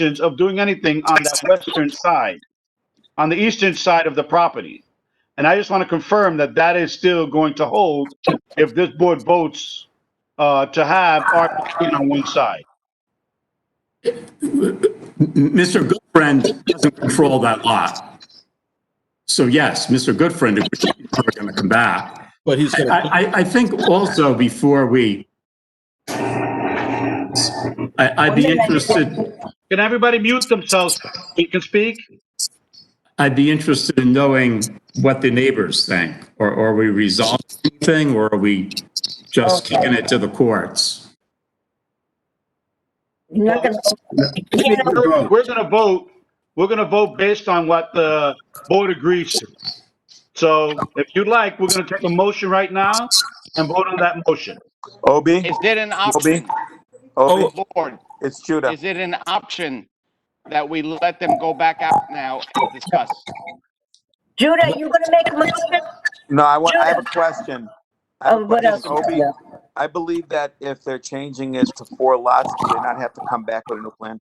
intentions of doing anything on that western side, on the eastern side of the property. And I just want to confirm that that is still going to hold if this board votes uh, to have RP on one side. Mr. Goodfriend doesn't control that lot. So yes, Mr. Goodfriend, if we're going to come back. But he's I, gonna, I, I think also before we, I, I'd be interested, Can everybody mute themselves? You can speak? I'd be interested in knowing what the neighbors think. Or or are we resolving anything or are we just kicking it to the courts? You're not gonna, you can't open We're we're gonna vote, we're gonna vote based on what the board agrees to. So if you like, we're gonna take a motion right now and vote on that motion. Is Obi, it an Obi, option, Obi, Lord? it's Judah. Is it an option that we let them go back out now and discuss? Judah, you gonna make a motion? No, I want, I have a question. I have a Oh, what else? question, Obi, I believe that if they're changing it to four lots, do they not have to come back with a new plan?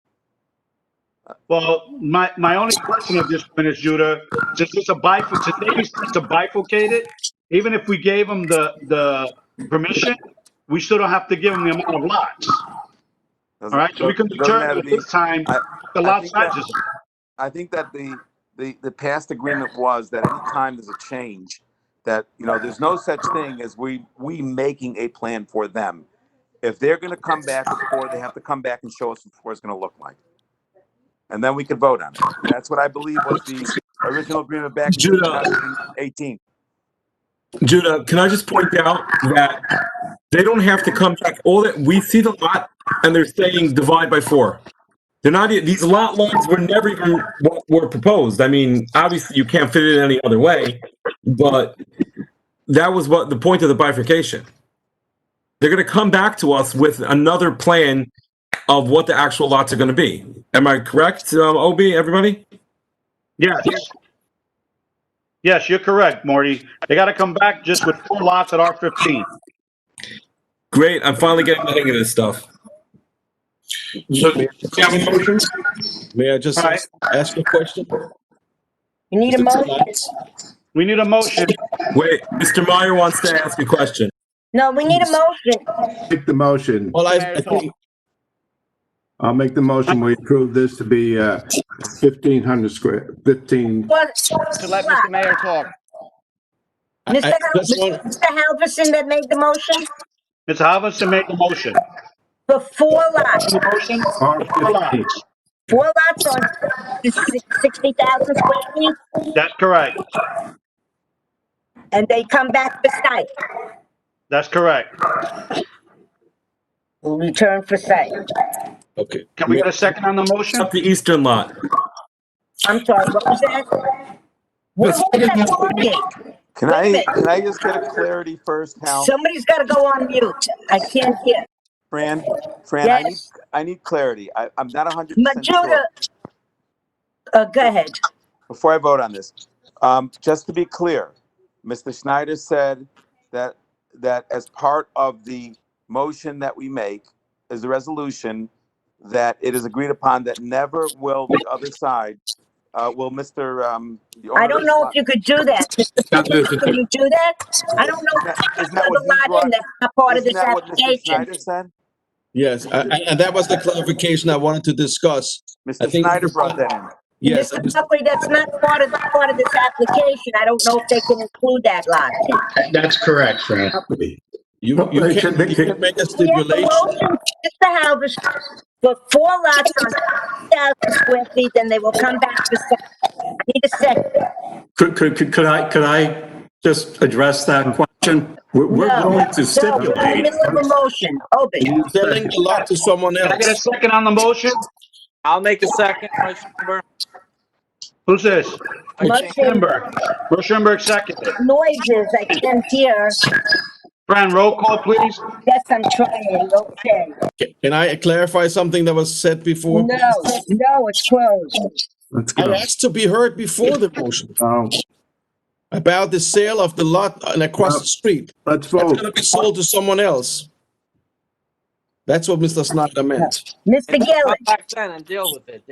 Well, my, my only question at this point is, Judah, just it's a bifurc, today's just to bifurcate it. Even if we gave them the, the permission, we still don't have to give them the amount of lots. All right, so we can Doesn't matter determine at to me. this time I- the I lot think that- sizes. I think that the, the, the past agreement was that anytime there's a change, that, you know, there's no such thing as we, we making a plan for them. If they're gonna come back with four, they have to come back and show us what four is gonna look like. And then we can vote on it. That's what I believe was the original agreement back in Judah. 2018. Judah, can I just point out that they don't have to come back, all that, we see the lot and they're saying divide by four. They're not, e- these lot lines were never even what were proposed. I mean, obviously you can't fit it any other way, but that was what, the point of the bifurcation. They're gonna come back to us with another plan of what the actual lots are gonna be. Am I correct, um, Obi, everybody? Yes. Yes, you're correct, Marty. They gotta come back just with four lots at R fifteen. Great, I'm finally getting the hang of this stuff. May I just All right. ask a question? You need a motion? We need a motion. Wait, Mr. Meyer wants to ask a question. No, we need a motion. Make the motion. Well, I, I think- I'll make the motion. We approve this to be uh, 1,500 square, 15, What- To let Mr. Mayor talk? Mr. Hal- Mr. Halverson that made the motion Ms. Halverson made the motion. for four lots, Motion? Four R 15. lots. four lots on sixty thousand square feet, That's correct. and they come back for site, That's correct. will return for site. Okay. Can we get a second on the motion? Up the eastern lot. I'm sorry, what was that? What was that talking? Can Wait a I, minute. can I just get a clarity first, Hal? Somebody's gotta go on mute, I can't hear. Fran, Fran, I need, Yes. I need clarity. I, I'm not hundred percent sure. Majuda, uh, go ahead. Before I vote on this, um, just to be clear, Mr. Schneider said that, that as part of the motion that we make is the resolution, that it is agreed upon that never will the other side, uh, will Mr. um. the owner I of don't the know lot- if you could do that. Can you do that? I don't know. Isn't that- There's isn't that what a he lot in brought- that's not part of isn't this that what Mr. Schneider application. said? Yes, and that was the clarification I wanted to discuss. I Mr. think- Schneider brought that in. Yes, Mr. Buckley, that's not part of, part of this application. I don't know if they can include that lot. That's correct, Fran. you, Well, you they can, should- they you should- can make a We have a stipulation. motion, Mr. Halverson, for four lots on 60,000 square feet, then they will come back to second. I need a second. Could, could, could could I, could I just address that question? We're, we're No. going to No, we're in the stipulate. middle of a motion. Open. You're Selling the lot to someone Can I get a else. second on the motion? I'll make a second, Vice Chair. Who's this? Motion Schemberg. Bruce Schemberg, second. noises, I can't hear. Fran, roll call, please. Yes, I'm trying, okay. Can I clarify something that was said before? No, no, it's closed. Let's I go. asked to be heard before the motion Um, about the sale of the lot uh, and across the street. Let's It's vote. gonna be sold to someone else. That's what Mr. Snyder meant. Mr. Gillis. Back then and deal with it.